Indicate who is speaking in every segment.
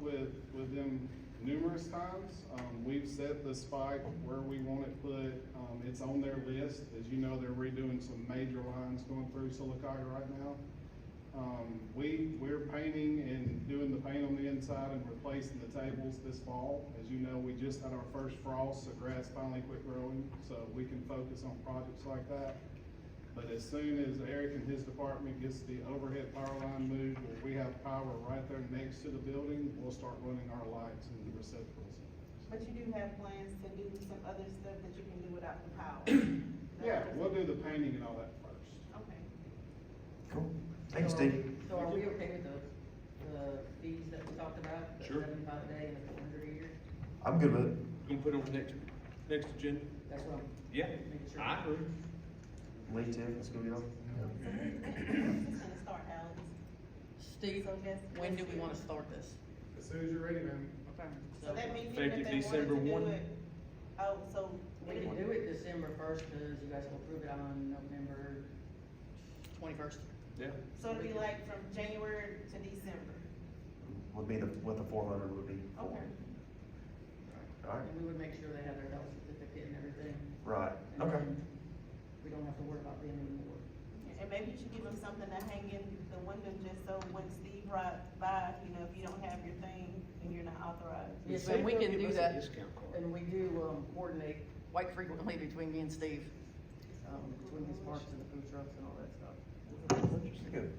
Speaker 1: with, with them numerous times. Um, we've set the spike where we want it put, um, it's on their list. As you know, they're redoing some major lines going through Solocaga right now. Um, we, we're painting and doing the paint on the inside and replacing the tables this fall. As you know, we just had our first frost, so grass finally quit growing, so we can focus on projects like that. But as soon as Eric and his department gets the overhead power line moved, where we have power right there next to the building, we'll start running our lights and receptacles.
Speaker 2: But you do have plans to do some other stuff that you can do without the power?
Speaker 1: Yeah, we'll do the painting and all that first.
Speaker 2: Okay.
Speaker 3: Cool. Thank you, Steve.
Speaker 4: So are we okay with the, the fees that we talked about? the
Speaker 5: Sure.
Speaker 4: Seventy-five a day and the four hundred a year?
Speaker 3: I'm good with it.
Speaker 5: Gonna put it on for next, next agenda?
Speaker 4: That's what I'm.
Speaker 5: Yeah,
Speaker 4: making sure.
Speaker 5: I agree.
Speaker 3: Lee, Tiff, let's go, y'all.
Speaker 2: So when- when is this gonna start, Alex?
Speaker 4: Steve,
Speaker 2: So that's-
Speaker 4: when do we wanna start this?
Speaker 1: As soon as you're ready, ma'am.
Speaker 4: Okay.
Speaker 2: So that means even
Speaker 5: Effective
Speaker 2: if they
Speaker 5: December
Speaker 2: wanted to do
Speaker 5: 1.
Speaker 2: it, oh, so.
Speaker 4: We can do it December first, cause you guys will approve it on November twenty-first.
Speaker 5: Yeah.
Speaker 2: So it'll be like from January to December?
Speaker 3: Would be the, what the four hundred would be for.
Speaker 2: Okay.
Speaker 3: All right,
Speaker 4: And we would make sure they have their health certificate and everything.
Speaker 3: right,
Speaker 4: and
Speaker 3: okay.
Speaker 4: then We don't have to worry about them anymore.
Speaker 2: And maybe you should give them something to hang in the window just so when Steve brought by, you know, if you don't have your thing and you're not authorized.
Speaker 4: Yes,
Speaker 5: Say
Speaker 4: and we can
Speaker 5: they'll
Speaker 4: do
Speaker 5: give us a
Speaker 4: that.
Speaker 5: Discount card.
Speaker 4: And we do, um, coordinate quite frequently between me and Steve, um, between his parks and the food trucks and all that stuff.
Speaker 3: Good.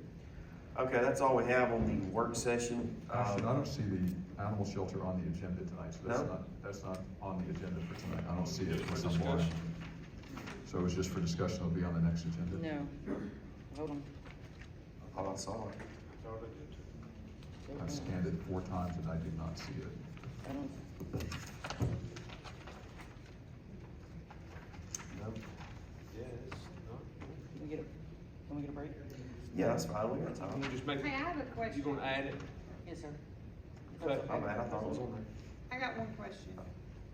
Speaker 3: Okay, that's all we have on the work session.
Speaker 6: Ashton, Uh, I
Speaker 3: Um,
Speaker 6: don't see the animal shelter on the agenda tonight, so that's
Speaker 3: No?
Speaker 6: not, that's not on the agenda for tonight. I don't see it for some more.
Speaker 5: Discussion.
Speaker 6: So it was just for discussion, it'll be on the next agenda.
Speaker 4: hold on.
Speaker 3: Oh, I saw it.
Speaker 6: I've scanned it four times and I did not see it.
Speaker 4: I don't,
Speaker 3: No.
Speaker 5: Yes, no.
Speaker 4: can we get a, can we get a break?
Speaker 3: Yeah, that's fine, we got
Speaker 5: I'm
Speaker 3: time.
Speaker 5: gonna just make,
Speaker 7: Hey, I have a
Speaker 5: you
Speaker 7: question.
Speaker 5: gonna add it?
Speaker 4: Yes, sir.
Speaker 5: Okay.
Speaker 3: My bad, Oh, I thought it was on
Speaker 7: I got one question.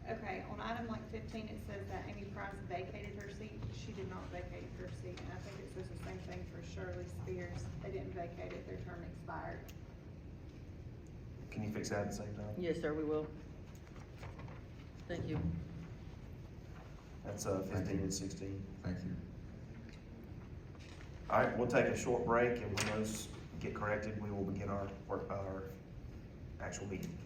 Speaker 7: Okay, on item like fifteen, it says that Amy Price vacated her seat. She did not vacate her seat, and I think it says the same thing for Shirley Spears. They didn't vacate it, their term expired.
Speaker 3: there. Can you fix that at the same time?
Speaker 4: Yes, sir, we will. Thank you.
Speaker 3: That's, uh, fifteen and sixteen.
Speaker 6: Thank you.
Speaker 3: All right, we'll take a short break, and when those get corrected, we will begin our, work- our actual meeting.